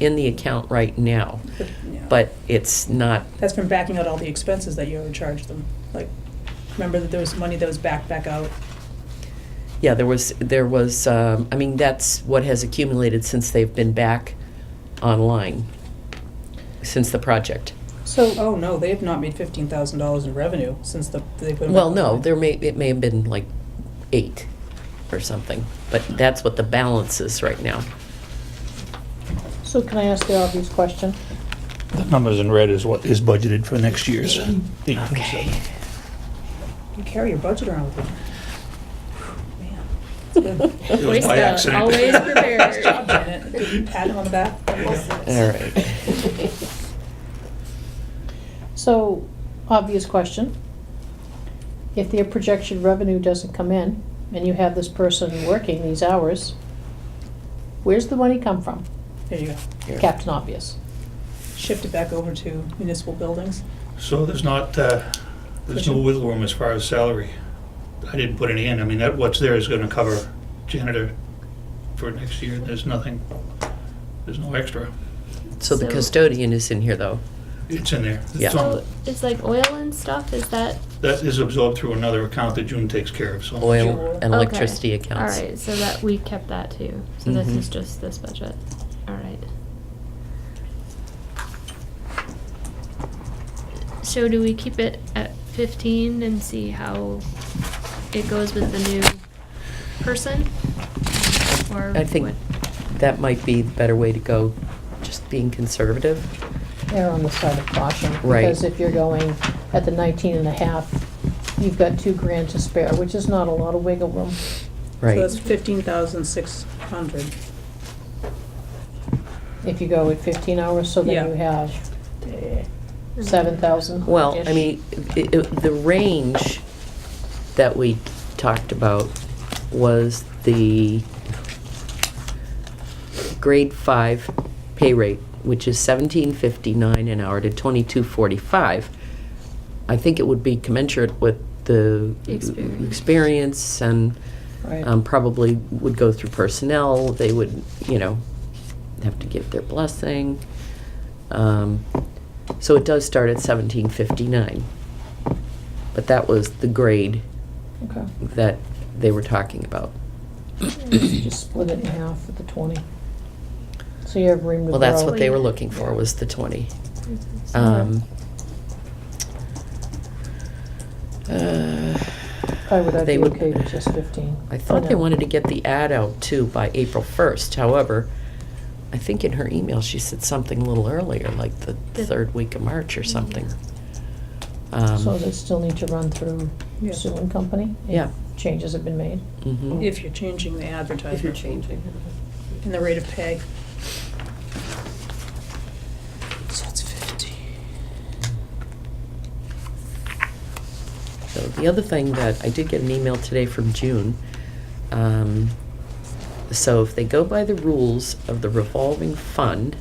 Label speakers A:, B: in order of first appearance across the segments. A: in the account right now,
B: But, yeah.
A: but it's not,
B: That's from backing out all the expenses that you overcharged them. Like, remember that there was money that was backed back out?
A: yeah, there was, there was, um, I mean, that's what has accumulated since they've been back online, since the project.
B: So, oh no, they have not made fifteen thousand dollars in revenue since the, they put them.
A: Well,
B: back
A: no,
B: online.
A: there may, it may have been like eight or something, but that's what the balance is right now.
C: So can I ask the obvious question?
D: The numbers in red is what is budgeted for next year's.
A: Okay.
B: You carry your budget around with you. Man, it's good.
D: It was by accident.
C: Always
B: Nice job,
C: prepared.
B: Janet. Did you pat him on the back? There you go.
A: All right.
C: So, obvious question. If their projected revenue doesn't come in and you have this person working these hours, where's the money come from?
B: There you go.
A: Here.
C: Captain Obvious.
B: Shift it back over to municipal buildings.
D: So there's not, uh, there's no wiggle room as far as salary. I didn't put any in. I mean, that, what's there is gonna cover janitor for next year. There's nothing, there's no extra.
A: So the
E: So-
A: custodian is in here, though.
D: It's in there.
A: Yeah.
D: It's on-
E: So Oh, it's like oil and stuff, is that?
D: That is absorbed through another account that June takes care of, so.
A: Oil and
E: okay.
A: electricity accounts.
E: All right, so that, we kept that too. So this
A: Mhm.
E: is just this budget. All right. So do we keep it at fifteen and see how it goes with the new person? Or
A: I think
E: what?
A: that might be the better way to go, just being conservative.
C: Err on the side of caution.
A: Right.
C: Because if you're going at the 19 and a half, you've got two grand to spare, which is not a lot of wiggle room.
B: So
A: Right.
B: that's fifteen thousand six hundred.
C: If you go at 15 hours, so
B: Yeah.
C: then you have eh, Mm-hmm. 7,000.
A: Well, I mean, i i the range that we talked about was the grade five pay rate, which is seventeen fifty-nine an hour to twenty-two forty-five. I think it would be commensurate with the
E: Experience.
A: experience and
C: Right.
A: um, probably would go through personnel. They would, you know, have to give their blessing. Um, so it does start at 1759. But that was the grade
C: Okay.
A: that they were talking about.
C: Just split it in half with the 20. So you have room to grow.
A: Well, that's what they were
E: Wait.
A: looking for, was the 20.
E: Mhm.
A: Um, uh,
C: Why would I
A: they
C: be
A: would-
C: okay with just 15?
A: I thought they wanted to get the ad out too by April 1st. However, I think in her email, she said something a little earlier, like the
E: The-
A: third week of March or something.
C: to. So
A: Um,
C: they still need to run through
B: Yeah.
C: Sue and Company? if
A: Yeah.
C: Changes have been made?
A: mhm.
B: If you're changing the advertisement.
F: If you're changing.
B: And the rate of pay. So it's fifty.
A: So the other thing that, I did get an email today from June. Um, So if they go by the rules of the revolving fund,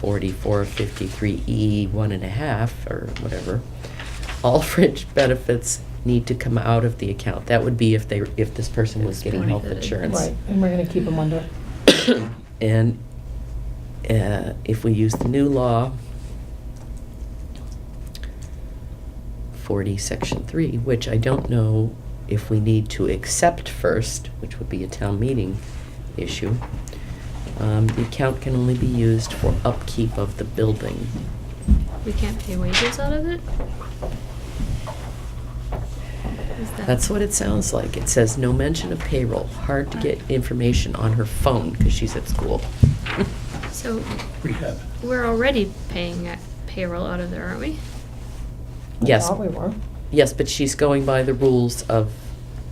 A: forty-four fifty-three E one and a half, or whatever, all fringe benefits need to come out of the account. That would be if they, if this person was getting health
E: Exploited.
A: insurance.
C: Right, and we're gonna keep them under.
A: And uh, if we use the new law, 40, Section 3, which I don't know if we need to accept first, which would be a town meeting issue, um, the account can only be used for upkeep of the building.
E: We can't pay wages out of it? Is that-
A: That's what it sounds like. It says no mention of payroll. Hard to get information on her phone because she's at school.
E: So
D: Rehab.
E: we're already paying uh, payroll out of there, aren't we?
A: Yes.
C: I thought we were.
A: Yes, but she's going by the rules of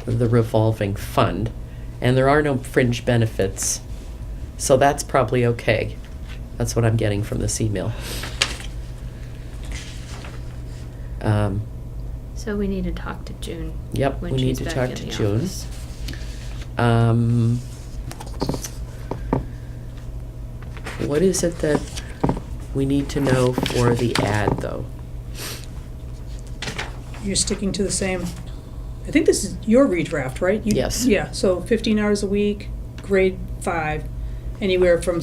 A: the revolving fund, and there are no fringe benefits. So that's probably okay. That's what I'm getting from this email. Um,
E: So we need to talk to June.
A: Yep,
E: when
A: we need
E: she's
A: to
E: back
A: talk
E: in
A: to
E: the
A: June.
E: office.
A: um, What is it that we need to know for the ad, though?
B: You're sticking to the same, I think this is your redraft, right? You-
A: Yes.
B: Yeah, so fifteen hours a week, grade five, anywhere from